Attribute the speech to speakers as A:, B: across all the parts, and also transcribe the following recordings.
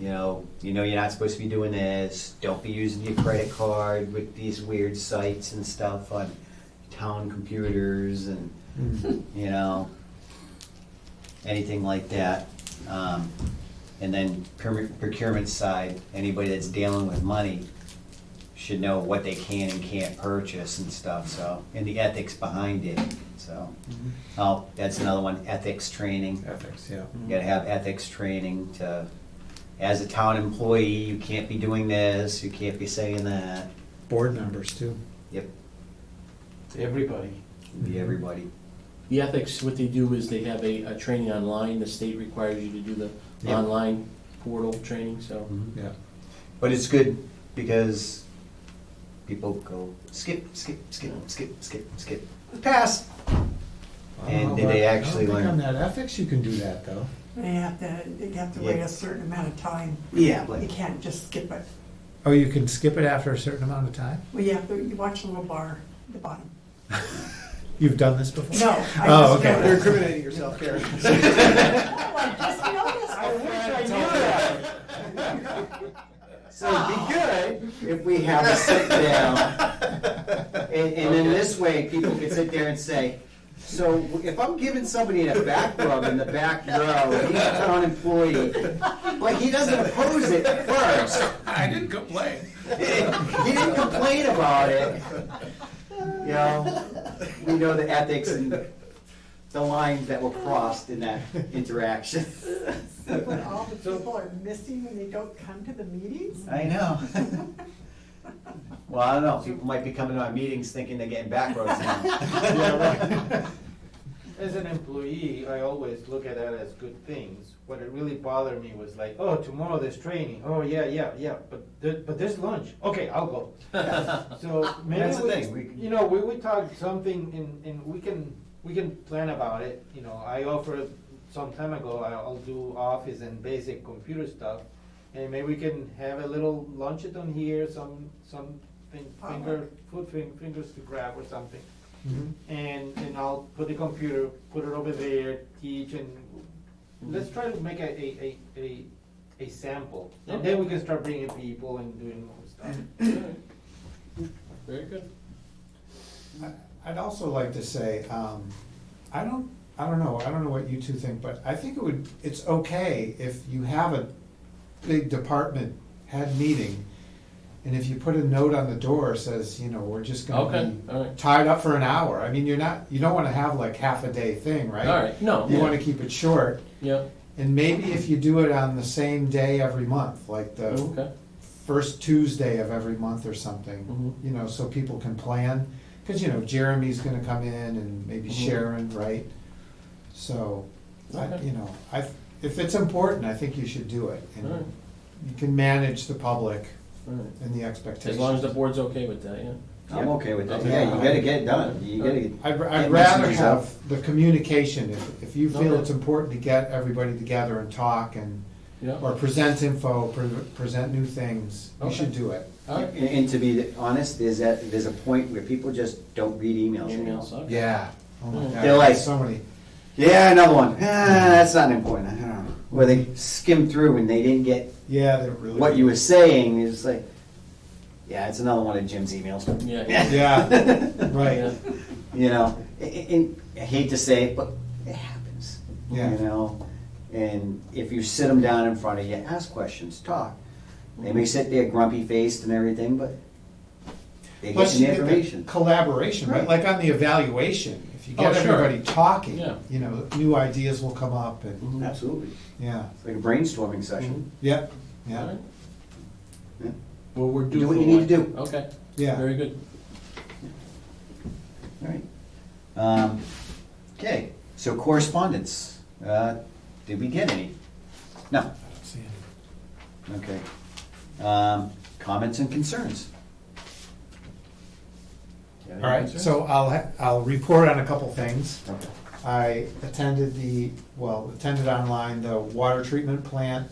A: you know, you know you're not supposed to be doing this. Don't be using your credit card with these weird sites and stuff on town computers and you know anything like that. Um, and then procure- procurement side, anybody that's dealing with money should know what they can and can't purchase and stuff. So and the ethics behind it. So oh, that's another one. Ethics training.
B: Ethics, yeah.
A: You gotta have ethics training to, as a town employee, you can't be doing this, you can't be saying that.
B: Board members too.
A: Yep,
C: Everybody.
A: be everybody.
D: The ethics, what they do is they have a, a training online, the state requires you to do the
A: Yeah.
D: online portal training, so.
B: Yeah.
A: But it's good because people go skip, skip, skip, skip, skip, skip, pass. And did they actually
B: I don't
A: learn?
B: think on that ethics you can do that though.
E: They have to, they have to wait
A: Yeah.
E: a certain amount of time.
A: Yeah,
E: You
A: like,
E: can't just skip it.
B: Oh, you can skip it after a certain amount of time?
E: Well, yeah, but you watch the little bar at the bottom.
B: You've done this before?
E: No,
B: Oh,
E: I just
B: okay.
E: noticed.
C: incriminating yourself, Karen.
E: Oh, I just noticed.
A: so it'd be good if we have a sit down. And, and then this way, people can sit there and say, so if I'm giving somebody a back rub in the back row, he's a town employee, but he doesn't oppose it at first.
B: I didn't complain.
A: he didn't complain about it. You know, we know the ethics and the lines that were crossed in that interaction.
E: So when all the people are missing when they don't come to the meetings?
A: I know. Well, I don't know, people might be coming to my meetings thinking they're getting back roads now.
C: As an employee, I always look at that as good things. What it really bothered me was like, oh, tomorrow there's training. Oh, yeah, yeah, yeah, but there, but there's lunch. Okay, I'll go. So maybe
A: That's the thing, we
C: we,
A: can-
C: you know, we, we talk something and, and we can, we can plan about it. You know, I offered some time ago, I- I'll do office and basic computer stuff. And maybe we can have a little luncheon here, some, some thing- finger, food fin- fingers to grab or something
B: Mm-hmm.
C: and and I'll put the computer, put it over there, teach, and let's try to make a a a, a, a sample, and then we can start bringing people and doing more stuff.
A: Mm-hmm.
D: Very good.
B: I'd also like to say, um, I don't, I don't know, I don't know what you two think, but I think it would, it's okay if you have a big department head meeting, and if you put a note on the door says, you know, we're just
D: Okay,
B: gonna
D: all
B: be
D: right.
B: tied up for an hour, I mean, you're not, you don't wanna have like half a day thing, right?
D: All right, no,
B: You
D: yeah,
B: wanna keep it short,
D: yeah,
B: and maybe if you do it on the same day every month, like
A: Uh,
B: the
D: Oh, okay,
B: first Tuesday of every month or something,
D: Mhm.
B: you know, so people can plan. Because, you know, Jeremy's going to come in and maybe
D: Mhm.
B: Sharon, right? So, I,
D: Okay.
B: you know, I, if it's important, I think you should do it. And
D: Alright.
B: you can manage the public
D: all right.
B: and the expectations.
D: As long as the board's okay with that, yeah.
A: I'm okay with that,
D: Okay.
A: yeah, you gotta get it done, you gotta.
B: I'd,
A: get
B: I'd rather
A: messages out.
B: have the communication. If, if you feel
D: Okay.
B: it's important to get everybody together and talk and
D: Yeah,
B: or present info, pre- present new things, you
D: Okay.
B: should do it.
D: all
A: And
D: right.
A: and to be honest, there's that, there's a point where people just don't read emails anymore.
D: Emails, okay.
B: Yeah. Oh my
D: Mm.
B: God.
A: They're like-
B: so many.
A: Yeah, another one. Ah, that's not important. I don't know. Where they skim through and they didn't get
B: Yeah, they're really.
A: what you were saying. It's like, yeah, it's another one of Jim's emails.
D: Yeah, yeah.
B: Yeah,
D: Yeah.
B: right.
A: You know, a- a- and I hate to say it, but it happens.
B: Yeah.
A: You know, and if you sit them down in front of you, ask questions, talk. They may sit there grumpy faced and everything, but they get
B: Plus,
A: the
B: you get
A: information.
B: the collaboration, right?
A: Right.
B: Like on the evaluation, if you
D: Oh,
B: get
D: sure.
B: everybody talking,
D: Yeah.
B: you know, new ideas will come up and,
D: Mhm.
A: Absolutely.
B: yeah,
A: Mm-hmm. It's like a brainstorming session.
B: yep,
D: All
B: yeah,
D: right.
A: Yeah.
D: Well, we're due
A: Do what
D: for
A: you need to
D: one.
A: do.
D: Okay,
B: yeah.
D: very good.
A: All right. Um, okay, so correspondence. Uh, did we get any? No. Okay. Um, comments and concerns.
B: All right, so I'll, ha- I'll report on a couple things.
A: Okay.
B: I attended the, well, attended online the water treatment plant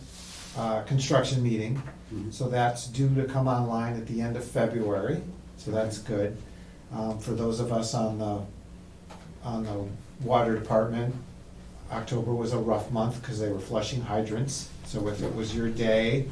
B: uh, construction meeting.
A: Mhm.
B: So that's due to come online at the end of February, so that's good. Um, For those of us on the, on the water department, October was a rough month because they were flushing hydrants. So if it was your day,